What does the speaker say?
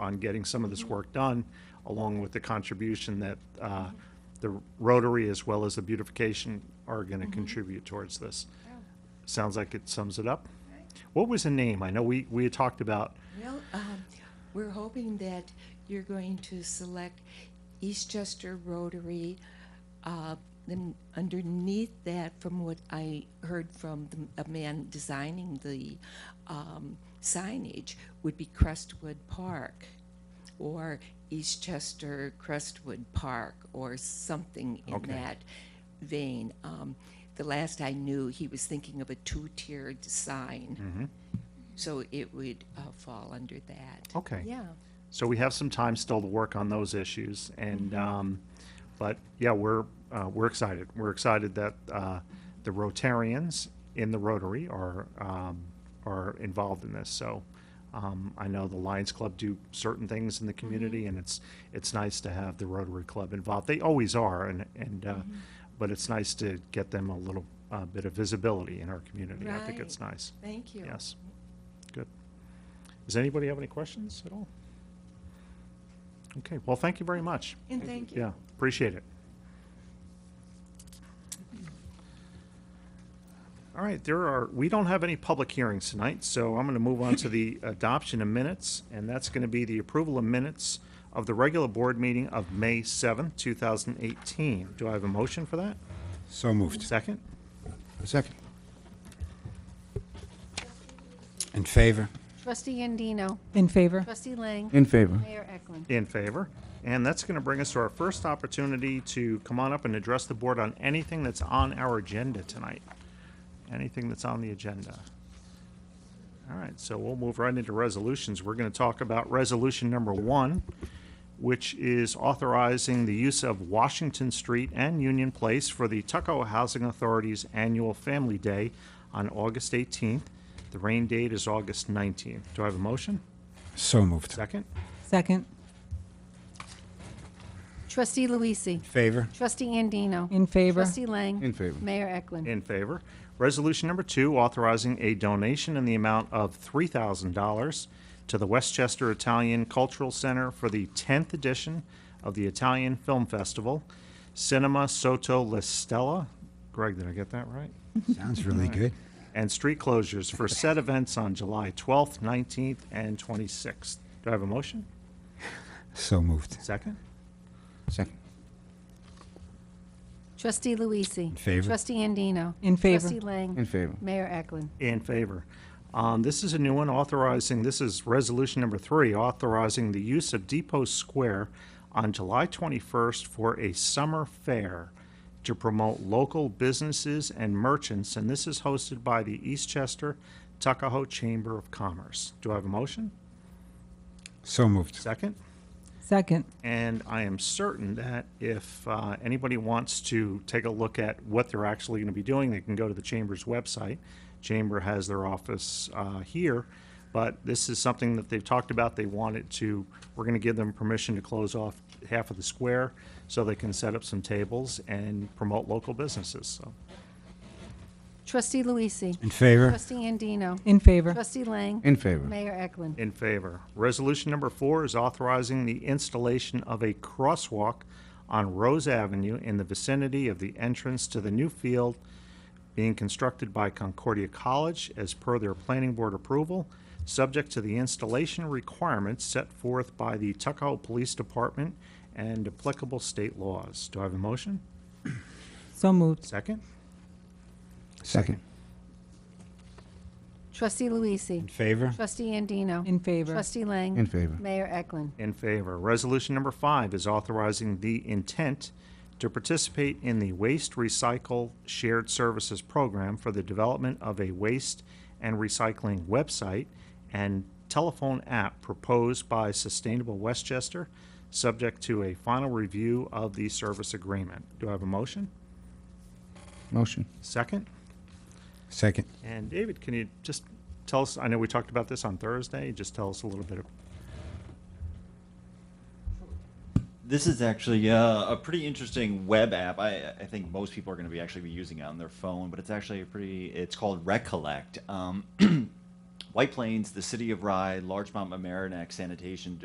on getting some of this work done, along with the contribution that uh, the Rotary as well as the beautification are going to contribute towards this. Sounds like it sums it up. What was the name? I know we, we had talked about, Well, um, we're hoping that you're going to select Eastchester Rotary. Uh, then underneath that, from what I heard from the, a man designing the um, signage, would be Crestwood Park or Eastchester Crestwood Park or something in Okay. that vein. Um, the last I knew, he was thinking of a two-tiered sign. Mm-hmm. So it would uh, fall under that. okay. Yeah. So we have some time still to work on those issues, and, um, but, yeah, we're, uh, we're excited. We're excited that, uh, the Rotarians in the Rotary are, um, are involved in this, so, um, I know the Lions Club do certain things in the community, and it's, it's nice to have the Rotary Club involved. They always are, and, and, uh, but it's nice to get them a little, uh, bit of visibility in our community. I think it's Right. nice. Thank you. Yes. Good. Does anybody have any questions at all? Okay, well, thank you very much. And thank you. Yeah, appreciate it. All right, there are, we don't have any public hearings tonight, so I'm going to move on to the adoption of minutes, and that's going to be the approval of minutes of the regular board meeting of May 7th, 2018. Do I have a motion for that? So moved. Second? Second. In favor? Trustee Andino. In favor? Trustee Lang. In favor. Mayor Eklund. In favor. And that's going to bring us to our first opportunity to come on up and address the board on anything that's on our agenda tonight. Anything that's on the agenda. All right, so we'll move right into resolutions. We're going to talk about resolution number one, which is authorizing the use of Washington Street and Union Place for the Tuckahoe Housing Authority's annual Family Day on August 18th. The rain date is August 19th. Do I have a motion? So moved. Second? Second? Trustee Luisi. Favor? Trustee Andino. In favor? Trustee Lang. In favor. Mayor Eklund. In favor. Resolution number two, authorizing a donation in the amount of $3,000 to the Westchester Italian Cultural Center for the 10th edition of the Italian Film Festival, Cinema Soto La Stella. Greg, did I get that right? Sounds really good. And street closures for said events on July 12th, 19th, and 26th. Do I have a motion? So moved. Second? Second. Trustee Luisi. In favor. Trustee Andino. In favor. Trustee Lang. In favor. Mayor Eklund. In favor. Um, This is a new one authorizing, this is resolution number three, authorizing the use of Depot Square on July 21st for a summer fair to promote local businesses and merchants, and this is hosted by the Eastchester Tuckahoe Chamber of Commerce. Do I have a motion? So moved. Second? Second? And I am certain that if uh, anybody wants to take a look at what they're actually going to be doing, they can go to the chamber's website. Chamber has their office uh, here, but this is something that they've talked about. They wanted to, we're going to give them permission to close off half of the square so they can set up some tables and promote local businesses. So, Trustee Luisi. In favor? Trustee Andino. In favor? Trustee Lang. In favor. Mayor Eklund. in favor. Resolution number four is authorizing the installation of a crosswalk on Rose Avenue in the vicinity of the entrance to the new field being constructed by Concordia College as per their planning board approval, subject to the installation requirements set forth by the Tuckahoe Police Department and applicable state laws. Do I have a motion? So moved. Second? Second. Trustee Luisi. In favor? Trustee Andino. In favor? Trustee Lang. In favor. Mayor Eklund. In favor. Resolution number five is authorizing the intent to participate in the Waste Recycle Shared Services Program for the development of a waste and recycling website and telephone app proposed by Sustainable Westchester, subject to a final review of the service agreement. Do I have a motion? Motion. Second? Second. And David, can you just tell us, I know we talked about this on Thursday, just tell us a little bit of This is actually uh, a pretty interesting web app. I, I think most people are going to be actually be using it on their phone, but it's actually a pretty. It's called Recollect. Um, White Plains, the city of Rye, Largemont Mamaroneck Sanitation